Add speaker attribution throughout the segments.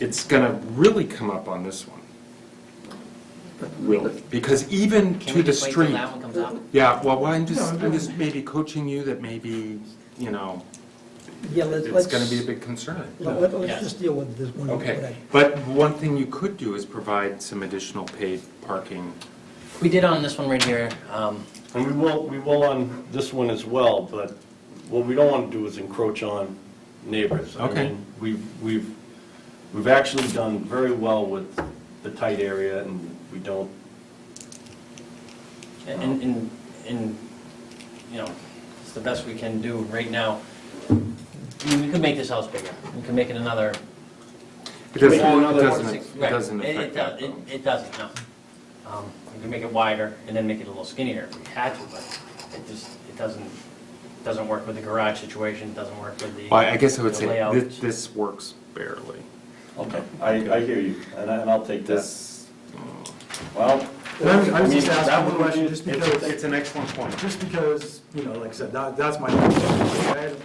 Speaker 1: it's gonna really come up on this one. Will, because even
Speaker 2: Can
Speaker 1: to
Speaker 2: we
Speaker 1: the
Speaker 2: just wait till
Speaker 1: street.
Speaker 2: that one comes up?
Speaker 1: Yeah, well, I'm just,
Speaker 3: No,
Speaker 1: I'm
Speaker 3: no.
Speaker 1: just maybe coaching you that maybe, you know,
Speaker 3: Yeah, let-
Speaker 1: it's
Speaker 3: let's.
Speaker 1: gonna be a big concern.
Speaker 3: let- let-
Speaker 2: Yeah.
Speaker 3: Let's just deal with this one.
Speaker 1: Okay,
Speaker 3: today.
Speaker 1: but one thing you could do is provide some additional paid parking.
Speaker 2: We did on this one right here, um,
Speaker 4: And we will, we will on this one as well, but what we don't want to do is encroach on neighbors. I
Speaker 1: Okay.
Speaker 4: mean, We've, we've, we've actually done very well with the tight area, and we don't,
Speaker 2: and, and, and, you know, it's the best we can do right now. I mean, We could make this house bigger, we could make it another.
Speaker 1: It doesn't,
Speaker 4: Well, another
Speaker 1: it
Speaker 4: one
Speaker 1: doesn't,
Speaker 2: six-
Speaker 1: it
Speaker 2: right,
Speaker 1: doesn't
Speaker 2: it-
Speaker 1: affect
Speaker 2: it
Speaker 1: that
Speaker 2: do-
Speaker 1: though.
Speaker 2: It, it doesn't, no. Um, We could make it wider and then make it a little skinnier if we had to, but it just, it doesn't, doesn't work with the garage situation, doesn't work with the.
Speaker 1: Well, I guess I would
Speaker 2: the
Speaker 1: say
Speaker 2: layout.
Speaker 1: this, this works barely.
Speaker 4: okay, I, I hear you, and I- and I'll take that.
Speaker 1: This.
Speaker 4: Well,
Speaker 5: I
Speaker 4: I
Speaker 5: was
Speaker 4: mean,
Speaker 5: just
Speaker 4: that
Speaker 5: asking
Speaker 4: would
Speaker 5: a
Speaker 4: be-
Speaker 5: question, just
Speaker 1: It's,
Speaker 5: because,
Speaker 1: it's an excellent point.
Speaker 5: just because, you know, like I said, that, that's my, concern.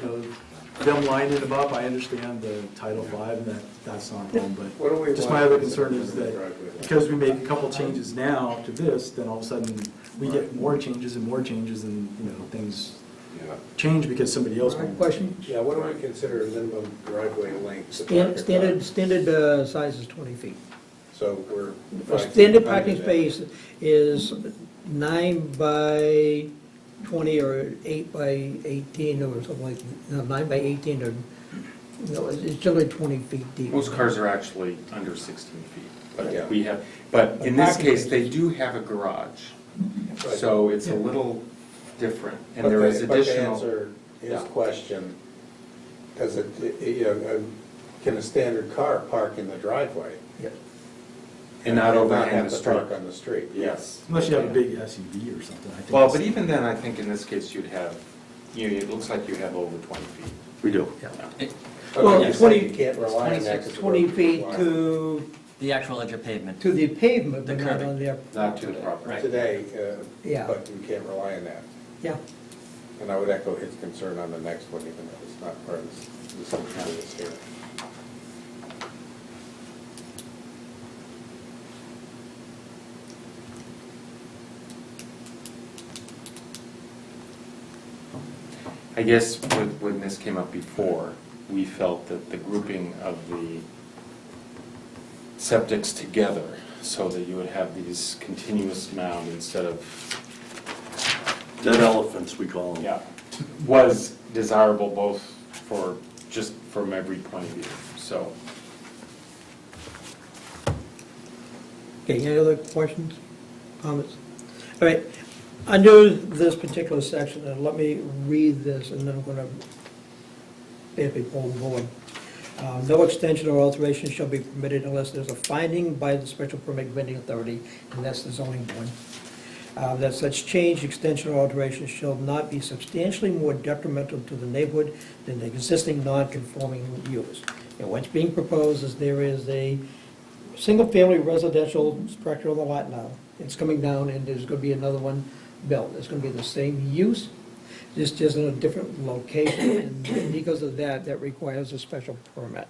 Speaker 5: you know, them lining them up, I understand the Title V, and that, that's not a problem, but just my other concern is that, because we make a couple changes now to this, then all of a sudden, we get more changes and more changes, and, you know, things change because somebody else.
Speaker 3: Alright,
Speaker 5: moved.
Speaker 3: Question,
Speaker 6: Yeah, what do we consider minimum driveway length? for
Speaker 3: Stan-
Speaker 6: parking
Speaker 3: standard,
Speaker 6: lot?
Speaker 3: standard uh, size is 20 feet.
Speaker 6: So we're.
Speaker 3: A
Speaker 6: five
Speaker 3: Standard
Speaker 6: feet
Speaker 3: parking
Speaker 6: under that.
Speaker 3: space is nine by 20 or eight by 18 or something like, no, nine by 18 or, no, it's it's generally 20 feet deep.
Speaker 1: Most cars are actually under 16 feet,
Speaker 6: Yeah.
Speaker 1: but we have, but in this case, they do have a garage,
Speaker 6: Right.
Speaker 1: so it's a little different, and
Speaker 6: But
Speaker 1: there
Speaker 6: the-
Speaker 1: is
Speaker 6: But to
Speaker 1: additional.
Speaker 6: answer his
Speaker 1: Yeah.
Speaker 6: question, does it, you know, uh, can a standard car park in the driveway?
Speaker 3: Yeah.
Speaker 1: And not over
Speaker 6: Not
Speaker 1: in the
Speaker 6: have to
Speaker 1: street.
Speaker 6: park on the street?
Speaker 1: Yes.
Speaker 5: Unless you have a big SUV or something, I think.
Speaker 1: Well,
Speaker 5: it's-
Speaker 1: but even then, I think in this case, you'd have, you, it looks like you have over 20 feet.
Speaker 4: we do.
Speaker 6: Okay,
Speaker 3: Well,
Speaker 6: you're saying
Speaker 3: 20
Speaker 6: You can't rely on that. 'cause the road
Speaker 3: 20
Speaker 6: is
Speaker 3: feet
Speaker 6: wide.
Speaker 3: to,
Speaker 2: The actual edge of pavement.
Speaker 3: to the pavement, but
Speaker 2: The
Speaker 3: not
Speaker 2: curving.
Speaker 3: on their,
Speaker 1: Not to the property.
Speaker 6: Today,
Speaker 3: Yeah.
Speaker 6: uh, but you can't rely on that.
Speaker 3: yeah.
Speaker 6: And I would echo his concern on the next one, even though it's not part of this, this hearing.
Speaker 1: I guess when, when this came up before, we felt that the grouping of the septics together, so that you would have these continuous mound instead of
Speaker 4: Dead elephants, we call them.
Speaker 1: Yeah, was desirable both for, just from every point of view, so.
Speaker 3: Okay, any other questions, comments? All right, under this particular section, and let me read this, and then I'm gonna basically pull the board. Uh, No extension or alteration shall be permitted unless there's a finding by the special permit granting authority, and that's the zoning board. Uh, That such change, extension, or alteration shall not be substantially more detrimental to the neighborhood than the existing non-conforming use. And what's being proposed is there is a single-family residential structure on the lot now. It's coming down, and there's gonna be another one built. It's gonna be the same use, just just in a different location, and because of that, that requires a special permit.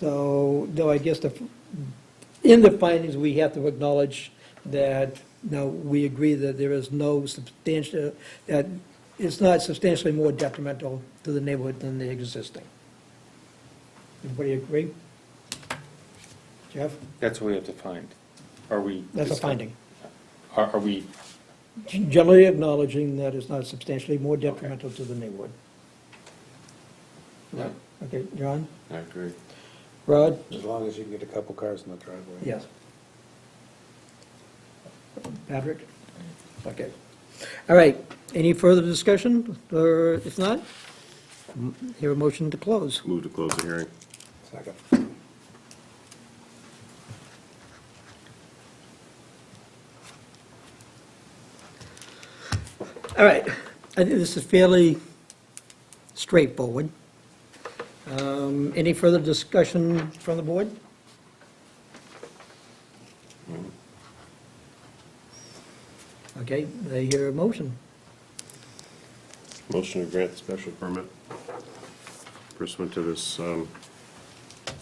Speaker 3: So, though I guess the, in the findings, we have to acknowledge that, now, we agree that there is no substantial, that it's not substantially more detrimental to the neighborhood than the existing. Everybody agree? Jeff?
Speaker 1: That's what we have to find. Are we?
Speaker 3: That's a finding.
Speaker 1: Are, are we,
Speaker 3: Generally acknowledging that it's not substantially more detrimental to the neighborhood.
Speaker 1: Yeah.
Speaker 3: Okay, John?
Speaker 1: I agree.
Speaker 3: Rod?
Speaker 6: As long as you can get a couple cars in the driveway.
Speaker 3: Yes. Patrick? Okay. All right, any further discussion, or if not, m- hear a motion to close.
Speaker 4: Move to close the hearing.
Speaker 6: Second.
Speaker 3: All right, I think this is fairly straightforward. Um, Any further discussion from the board? Okay, I hear a motion.
Speaker 7: Motion to grant the special permit pursuant to this um,